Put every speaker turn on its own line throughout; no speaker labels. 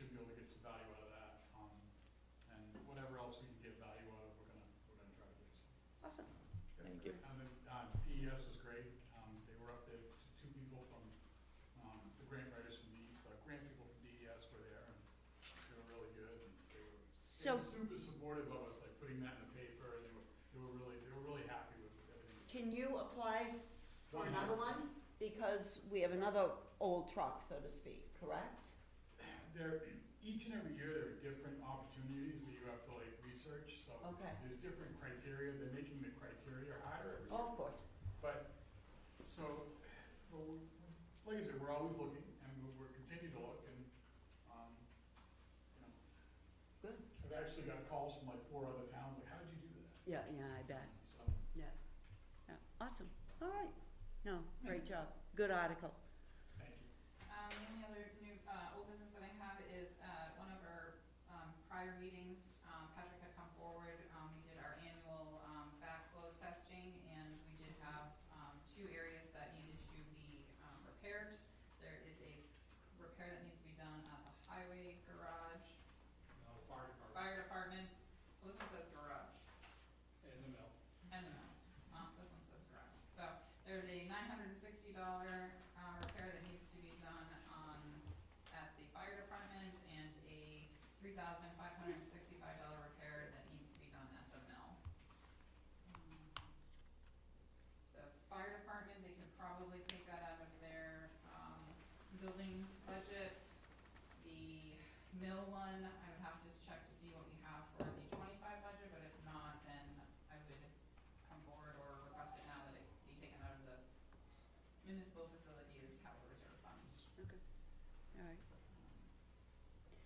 um, um, E um, E They
So
were super supportive of us, like putting that in the paper, and they were, they were really, they were really happy with everything.
can you apply for
One
another
hundred
one? Because we have another old truck, so to speak, correct?
There, each and every year, there are different opportunities that you have to like research, so
Okay.
there's different criteria, they're making the criteria harder every year.
Oh, of course.
But, so, well, we- like I said, we're always looking, and we- we're continue to look, and, um, you know.
Good.
I've actually got calls from like four other towns, like, how'd you do that?
Yeah, yeah, I bet.
So,
Yeah, awesome. All right. No, great job. Good article.
thank you.
Um, the only other new, uh, old business that I have is, uh, one of our, um, prior meetings, um, Patrick had come forward, um, we did our annual, um, backflow testing, and we did have, um, two areas that needed to be, um, repaired. There is a repair that needs to be done at the highway garage,
No, fire department,
fire department, well, this one says garage.
in the mill.
I don't know, well, this one says garage, so there's a nine hundred and sixty dollar, uh, repair that needs to be done on, at the fire department, and a three thousand five hundred and sixty-five dollar repair that needs to be done at the mill. Um, The fire department, they could probably take that out of their, um, building budget. The mill one, I would have to just check to see what we have for the twenty-five budget, but if not, then I would come forward or request it now that it be taken out of the municipal facilities capital reserve fund.
All right.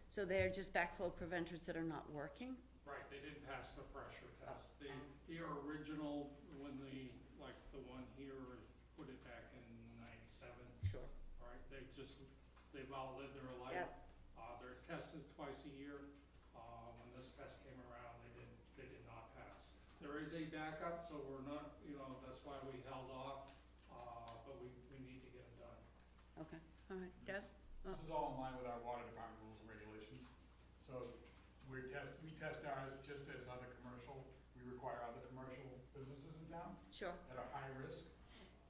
So they're just backflow preventers that are not working?
Right, they didn't pass the pressure test. The, the original, when the, like, the one here was- put it back in ninety-seven,
Sure.
right? They just, they've outlived their life.
Yep.
Uh, they're tested twice a year. Uh, when this test came around, they did, they did not pass. There is a backup, so we're not, you know, that's why we held off, uh, but we, we need to get it done.
Okay, all right. Deb?
This is all in line with our water department rules and regulations. So we test, we test ours just as other commercial, we require other commercial businesses in town
Sure,
that are high risk.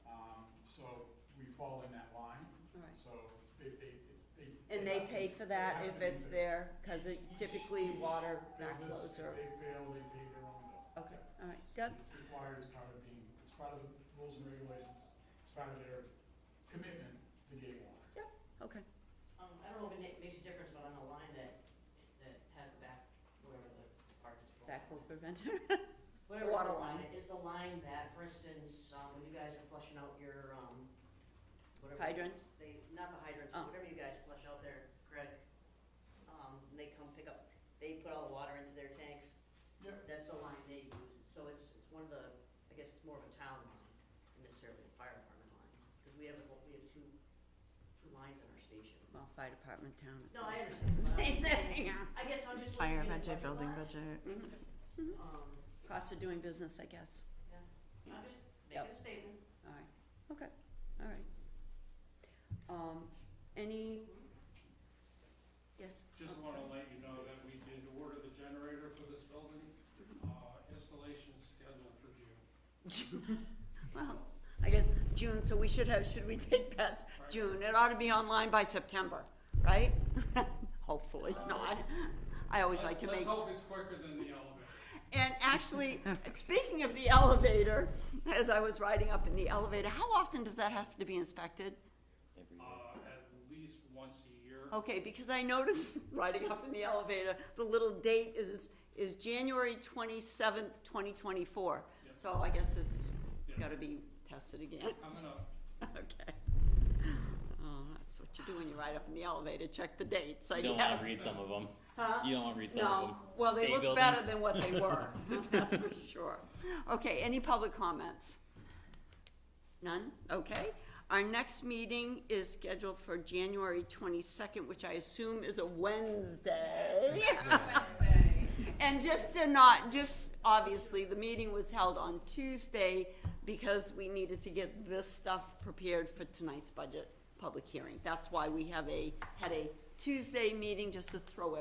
Um, so we fall in that line,
all right.
so they, they, it's, they.
And they
have to-
pay for
they
that
have
if
to
it's
pay.
there, cause it
Each-
typically
each
water
Business,
backflows
if
or,
they fail, they pay their own bill.
okay, all right. Deb?
It's required as part of being, it's part of the rules and regulations, it's part of their commitment to getting water.
Okay,
Um, I don't know if it ma- makes a difference, but on the line that, that has the back, whatever the part that's. broken.
backflow preventer.
Whatever
water
the
line.
Is the line that, for instance, um, when you guys are flushing out your, um, whatever.
Hydrants?
They, not the hydrants,
Oh.
but whatever you guys flush out there, Greg, um, they come pick up, they put all the water into their tanks.
Yep.
That's the line they use, so it's, it's one of the, I guess it's more of a town line, than necessarily a fire department line, because we have, a whole- we have two, two lines on our station.
Well, fire department, town. it's
No,
all
I understand. but I'm
Same
just
thing,
saying,
yeah.
I guess I'm just looking
Fire
at the budget
budget, building
lines.
budget.
Mhm.
Um,
Cost of doing business, I guess.
I'm just
Yep.
making a statement.
All right, okay, all right. Um, any? Yes?
Just
Oh,
wanna
sorry.
let you know that we did order the generator for this building, uh, installation's scheduled for June.
Well, I guess June, so we should have, should we take past June? It ought to be online by September, right? Hopefully not. I always like
Let's-
to make.
Let's hope it's quicker than the elevator.
And actually, speaking of the elevator, as I was riding up in the elevator, how often does that have to be inspected?
Uh, at least once a year.
Okay, because I noticed riding up in the elevator, the little date is, is January twenty-seventh, twenty twenty-four.
Yep.
So I guess it's
Yeah.
gotta be tested again.
Coming up,
Okay. Oh, that's what you do when you ride up in the elevator, check the dates, I
You don't want
guess.
to read some of them.
Huh?
You don't want to read some of
No,
them.
well, they
State
look better
buildings.
than what they were, that's for sure. Okay, any public comments? None, okay. Our next meeting is scheduled for January twenty-second, which I assume is a Wednesday.
Wednesday.
And just to not, just, obviously, the meeting was held on Tuesday because we needed to get this stuff prepared for tonight's budget public hearing. That's why we have a, had a Tuesday meeting just to throw